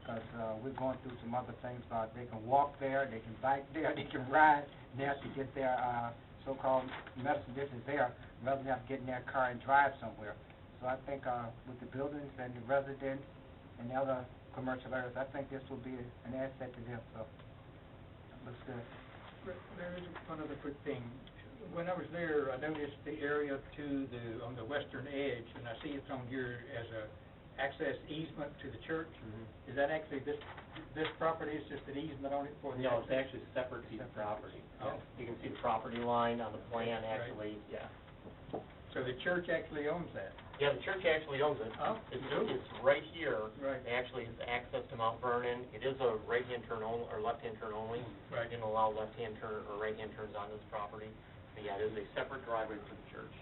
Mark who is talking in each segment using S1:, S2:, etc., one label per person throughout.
S1: because, uh, we're going through some other things, uh, they can walk there, they can bike there, they can ride there to get their, uh, so-called medicine business there, rather than have to get in their car and drive somewhere. So I think, uh, with the buildings and the residents and the other commercial areas, I think this will be an asset to them, so, looks good.
S2: There- There is one other quick thing. When I was there, I noticed the area to the, on the western edge, and I see it's on here as a access easement to the church.
S3: Mm-hmm.
S2: Is that actually this, this property is just an easement on it for the
S3: No, it's
S2: access?
S3: actually separate piece of property.
S2: Oh.
S3: You can see the property line on the plan,
S2: Right.
S3: actually, yeah.
S2: So the church actually owns that?
S3: Yeah, the church actually owns it.
S2: Oh.
S3: It's, it's right here.
S2: Right.
S3: It actually is access to Mount Vernon. It is a right-hand turn only, or left-hand turn only. I
S2: Mm-hmm. Right.
S3: didn't allow left-hand turn or right-hand turns on this property. But yeah, it is a separate driveway for the church.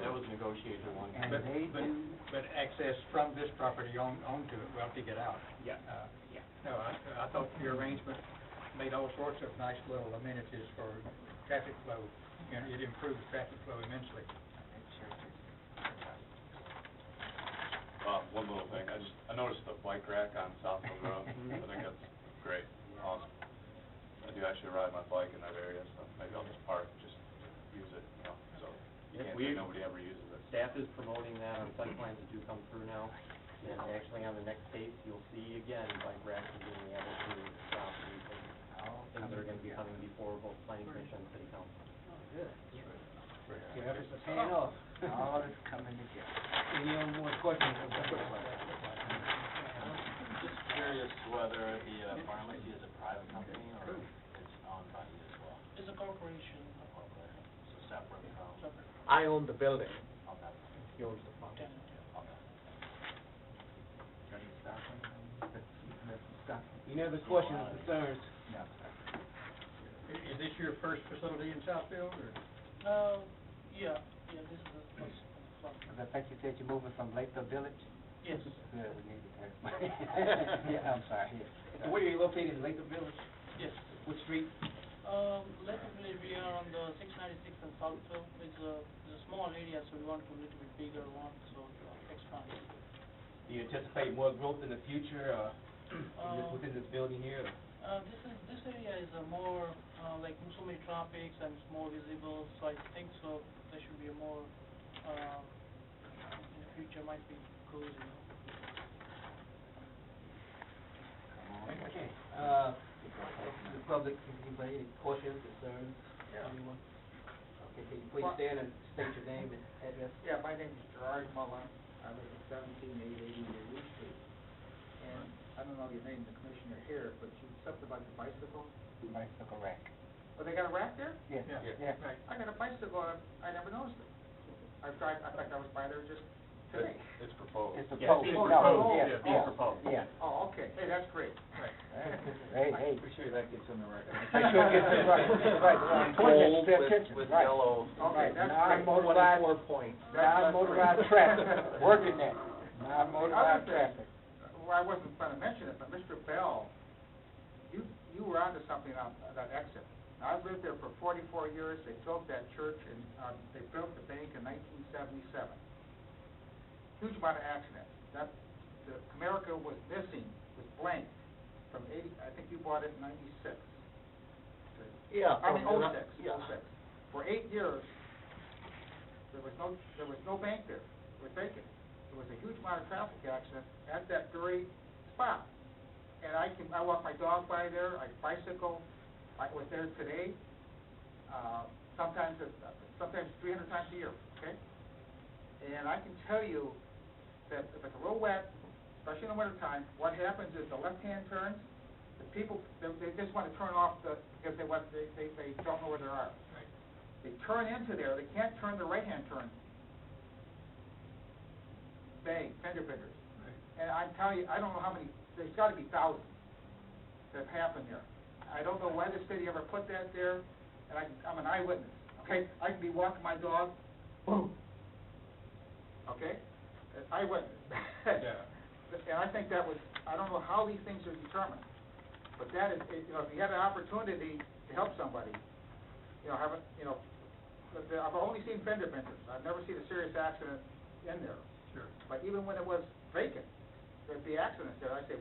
S3: That was negotiated one.
S1: And
S2: But-
S1: they
S2: but-
S1: do,
S2: But access from this property on, onto it, we'll have to get out.
S3: Yeah.
S2: Uh,
S3: Yeah.
S2: No, I, I thought your arrangement made all sorts of nice little amenities for traffic flow, and it improved traffic flow immensely.
S4: Uh, one little thing, I just, I noticed the bike rack on South Hill Road, I think that's great, awesome. I do actually ride my bike in that area, so maybe I'll just park, just use it, you know, so, you
S3: Yeah,
S4: can't
S3: we-
S4: say nobody ever uses it.
S3: Staff is promoting that on site plans that do come through now. And actually, on the next page, you'll see again, bike racks are being added to the property, things- things that are gonna be coming before both planning commission and city council.
S2: Yeah, it's
S5: Paying off.
S1: all is coming together.
S5: Any other more questions?
S6: Just curious whether the uh, pharmacy is a private company or it's owned by you as well? It's a corporation. A corporation, so separate from,
S3: I own the building.
S6: okay,
S3: He owns the property.
S6: okay.
S5: Any other questions, or concerns?
S2: Is this your first facility in Southfield, or?
S7: Uh, yeah, yeah, this is the first one.
S1: Because I think you said you're moving from Lakeville Village?
S7: Yes,
S1: Yeah, we need to. Yeah, I'm sorry, yeah.
S5: Where are you located, in Latham Village?
S7: yes.
S5: What street?
S7: Um, Latham Village, we are on the six ninety-six and Southfield, it's a, it's a small area, so we want to a little bit bigger one, so uh, expand.
S5: Do you anticipate more growth in the future, uh, in this-
S7: Uh,
S5: within this building here? or-
S7: Uh, this is, this area is a more, uh, like, so many traffics and it's more visible, so I think so, there should be a more, uh, in the future might be cool, you know.
S5: Okay, uh, the public, anybody, any questions, concerns, anyone? Okay, can you please stand and state your name and address?
S8: Yeah, my name is Gerard Muller. I live at seventeen eight eighty Lee Street. And I don't know your name, the commissioner here, but you, something about your bicycle?
S1: Bicycle rack.
S8: Oh, they got a rack there?
S1: Yeah, yeah.
S2: Right.
S8: I got a bicycle, I, I never noticed it. I've tried, I think I was by there just today.
S4: It's- It's proposed.
S1: It's a
S3: Yeah,
S1: pole,
S3: it's
S1: no,
S3: proposed,
S1: yeah,
S3: yeah, it's
S1: yeah,
S3: proposed.
S1: yeah.
S8: Oh, okay, hey, that's great.
S1: Hey, hey.
S6: sure that gets in the record.
S1: Make sure it gets it right, right, right. Point it, pay attention,
S3: With
S1: right.
S3: yellow.
S1: Right,
S8: Okay, that's great.
S1: non-motorized,
S5: points.
S1: non-motorized traffic, working that,
S8: Other
S1: non-motorized
S8: thing-
S1: traffic.
S8: Well, I wasn't gonna mention it, but Mr. Bell, you, you were onto something on that exit. I've lived there for forty-four years, they built that church and, um, they built the bank in nineteen seventy-seven. Huge amount of accidents. That, the Comerica was missing, was blank from eighty, I think you bought it in ninety-six.
S3: Yeah.
S8: I mean, oh oh-six,
S3: Yeah.
S8: oh-six. For eight years, there was no, there was no bank there, it was vacant. There was a huge amount of traffic accident at that very spot. And I can, I walk my dog by there, I bicycle, I was there today, uh, sometimes, it's- sometimes three hundred times a year, okay? And I can tell you that if it's real wet, especially in the wintertime, what happens is the left-hand turns, the people, they, they just wanna turn off the, because they want, they, they, they don't know where they are.
S2: Right.
S8: They turn into there, they can't turn the right-hand turn. Bang, fender benders. And I'm telling you, I don't know how many, there's gotta be thousands that have happened there. I don't know why the city ever put that there, and I, I'm an eyewitness, okay? I can be walking my dog, boom, okay? An Eyewitness.
S2: Yeah.
S8: And I think that was, I don't know how these things are determined, but that is, it- you know, if you had an opportunity to help somebody, you know, have a, you know, but the- I've only seen fender benders, I've never seen a serious accident in there.
S2: Sure.
S8: But even when it was vacant, there'd be accidents there, I'd say,